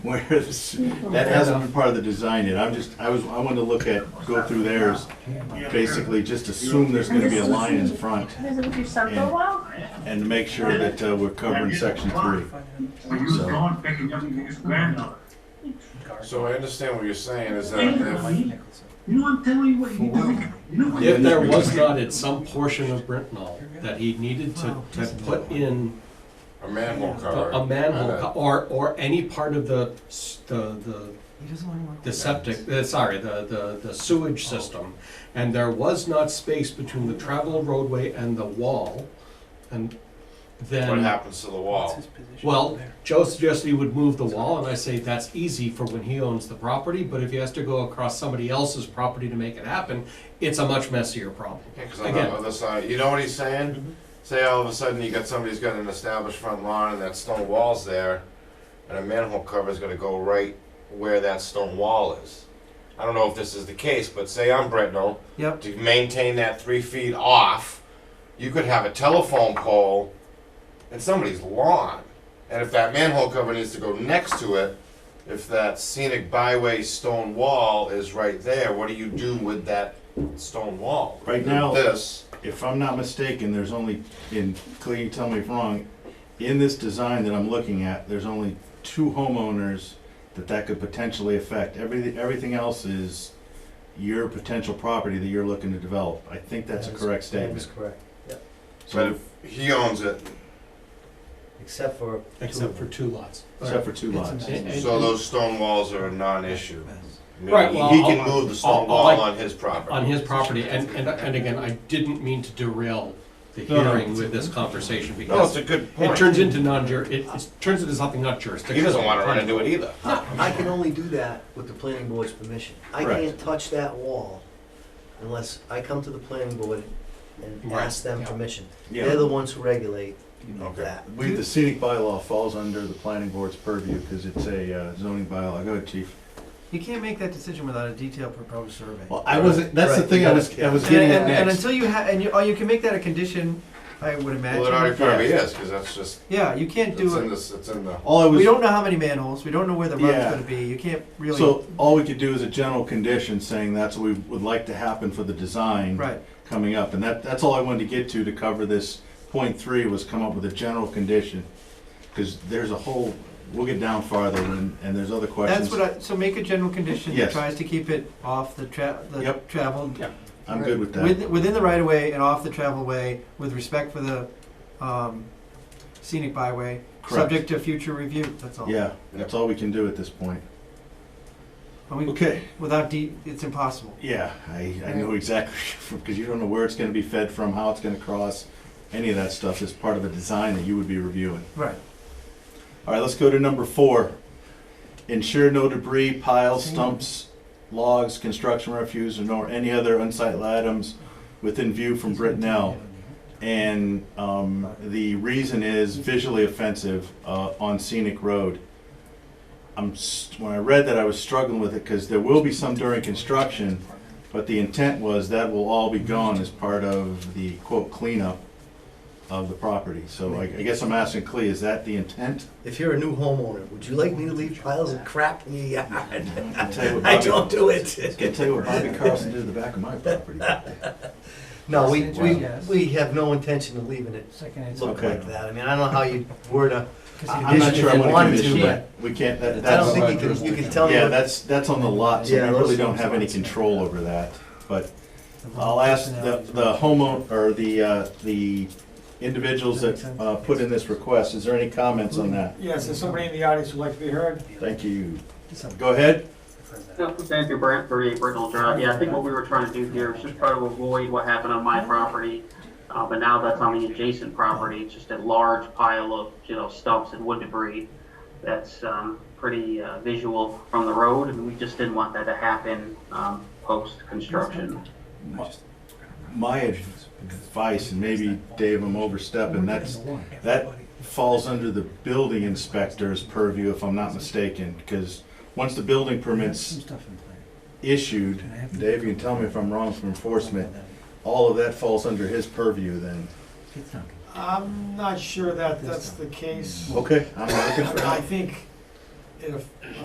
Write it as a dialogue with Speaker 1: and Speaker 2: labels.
Speaker 1: where this, that hasn't been part of the design yet, I'm just, I was, I wanted to look at, go through theirs, basically just assume there's gonna be a line in front,
Speaker 2: This is what you've done for a while?
Speaker 1: and make sure that uh, we're covering section three.
Speaker 3: When you was gone picking up his granddaughter.
Speaker 4: So I understand what you're saying is that if,
Speaker 3: You know, I'm telling you what you do. You know what you
Speaker 5: If
Speaker 3: do.
Speaker 5: there was not at some portion of Britnall that he needed to, to put in
Speaker 4: a manhole
Speaker 5: a
Speaker 4: cover.
Speaker 5: a manhole
Speaker 4: and a-
Speaker 5: co- or, or any part of the, s- the, the, the septic, uh, sorry, the, the, the sewage system, and there was not space between the travel roadway and the wall, and
Speaker 4: What
Speaker 5: then,
Speaker 4: happens to the wall?
Speaker 5: well, Joe suggested he would move the wall, and I say that's easy for when he owns the property, but if he has to go across somebody else's property to make it happen, it's a much messier problem.
Speaker 4: Yeah, 'cause on the
Speaker 5: Again.
Speaker 4: other side, you know what he's saying? Say all of a sudden you got somebody's got an established front lawn and that stone wall's there, and a manhole cover's gonna go right where that stone wall is. I don't know if this is the case, but say I'm Britnell,
Speaker 6: Yep.
Speaker 4: to maintain that three feet off, you could have a telephone pole in somebody's lawn. And if that manhole cover needs to go next to it, if that scenic byway stone wall is right there, what do you do with that stone wall?
Speaker 1: Right now-
Speaker 4: This,
Speaker 1: If I'm not mistaken, there's only, and Clea, tell me if wrong, in this design that I'm looking at, there's only two homeowners that that could potentially affect, everything, everything else is your potential property that you're looking to develop, I think that's a
Speaker 7: That is-
Speaker 1: correct
Speaker 7: That is
Speaker 1: statement.
Speaker 7: correct,
Speaker 4: but
Speaker 1: So,
Speaker 4: if he owns it,
Speaker 7: except for.
Speaker 5: Except for two lots.
Speaker 1: except for two lots.
Speaker 5: And- and-
Speaker 4: so those stone walls are a non-issue. I mean,
Speaker 5: Right, well,
Speaker 4: He
Speaker 5: I'll-
Speaker 4: can move the
Speaker 5: I'll- I'll
Speaker 4: stone wall
Speaker 5: like-
Speaker 4: on his property.
Speaker 5: On his property, and, and, and again, I didn't mean to derail the
Speaker 1: No, no.
Speaker 5: hearing with this conversation,
Speaker 4: No, it's
Speaker 5: because
Speaker 4: a good
Speaker 5: it
Speaker 4: point.
Speaker 5: turns into non-jur, it, it turns into something not jurisdictional.
Speaker 4: He doesn't wanna run into it either.
Speaker 7: I can only do that with the planning board's permission. I
Speaker 1: Correct.
Speaker 7: can't touch that wall unless I come to the planning board and
Speaker 5: Right,
Speaker 7: ask them
Speaker 5: yeah.
Speaker 7: permission. They're
Speaker 1: Yeah, Oh.
Speaker 7: the ones who regulate
Speaker 4: Okay.
Speaker 7: that.
Speaker 1: we, the scenic bylaw falls under the planning board's purview, because it's a uh, zoning bylaw, go ahead, chief.
Speaker 8: You can't make that decision without a detailed proposed survey.
Speaker 1: Well, I wasn't, that's the
Speaker 7: Right,
Speaker 1: thing
Speaker 7: you
Speaker 1: I
Speaker 7: gotta-
Speaker 1: was, I was
Speaker 8: And-
Speaker 1: getting at
Speaker 8: and, and
Speaker 1: next.
Speaker 8: until you have, and you, or you can make that a condition, I would imagine.
Speaker 4: Well, it already probably is, cause that's just,
Speaker 8: yeah, you can't
Speaker 4: it's
Speaker 8: do
Speaker 4: in
Speaker 8: it.
Speaker 4: this, it's in the.
Speaker 1: All I was.
Speaker 8: We don't know how many manholes. We don't know where the road's
Speaker 1: Yeah.
Speaker 8: going to be. You can't really.
Speaker 1: So all we could do is a general condition saying that's what we would like to happen for the design.
Speaker 8: right.
Speaker 1: Coming up, and that, that's all I wanted to get to to cover this point three was come up with a general condition. Cause there's a whole, we'll get down farther and, and there's other questions.
Speaker 8: That's what I. So make a general condition
Speaker 1: Yes.
Speaker 8: that tries to keep it off the tra- the
Speaker 1: Yep.
Speaker 8: traveled
Speaker 1: I'm good with that.
Speaker 8: with, within the right of way and off the travel way with respect for the um, scenic byway,
Speaker 1: Correct.
Speaker 8: subject to future review. That's all.
Speaker 1: Yeah, that's all we can do at this point.
Speaker 8: And we-
Speaker 1: Okay,
Speaker 8: Without de- it's impossible.
Speaker 1: yeah, I, I know exactly, because you don't know where it's gonna be fed from, how it's gonna cross, any of that stuff is part of a design that you would be reviewing.
Speaker 8: Right.
Speaker 1: All right, let's go to number four. Ensure no debris, piles, stumps, logs, construction refuse, and nor any other unsightly items within view from Britnell. And um, the reason is visually offensive uh, on scenic road. I'm, s- when I read that, I was struggling with it because there will be some during construction, but the intent was that will all be gone as part of the quote cleanup of the property. So I I guess I'm asking Clea, is that the intent?
Speaker 7: If you're a new homeowner, would you like me to leave piles of crap in your yard?
Speaker 1: I tell you what,
Speaker 7: I
Speaker 1: Bobby-
Speaker 7: don't do it.
Speaker 1: I tell you what Bobby Carlson did to the back of my property.
Speaker 7: No, we, we,
Speaker 8: Yes.
Speaker 7: we have no intention of leaving it
Speaker 8: Second
Speaker 7: look
Speaker 1: Okay.
Speaker 7: like that. I mean, I don't know how you word a,
Speaker 1: I'm not sure I
Speaker 7: If you
Speaker 1: want
Speaker 7: wanted
Speaker 1: to
Speaker 7: to,
Speaker 1: condition that. We can't, that,
Speaker 7: I don't
Speaker 1: that's,
Speaker 7: think you can, you can tell me.
Speaker 1: yeah,
Speaker 7: what-
Speaker 1: that's, that's on the lot, so
Speaker 7: Yeah,
Speaker 1: we really
Speaker 7: those-
Speaker 1: don't have any control over that. But I'll ask the, the homeowner, or the, uh, the individuals that, uh, put in this request, is there any comments on that?
Speaker 6: Yes, there's somebody in the audience who'd like to be heard.
Speaker 1: Thank you. Go ahead.
Speaker 3: Yeah, Thank you, Brent, for the original draft. Yeah, I think what we were trying to do here was just try to avoid what happened on my property. Uh, but now that's on the adjacent property, it's just a large pile of, you know, stumps and wood debris that's, um, pretty, uh, visual from the road, and we just didn't want that to happen, um, post-construction.
Speaker 1: My advice, and maybe Dave, I'm overstepping, that's, that falls under the building inspector's purview, if I'm not mistaken, because once the building permit's issued, Dave, you can tell me if I'm wrong from enforcement, all of that falls under his purview then.
Speaker 6: I'm not sure that that's the case.
Speaker 1: Okay. I'm looking for,
Speaker 6: I think if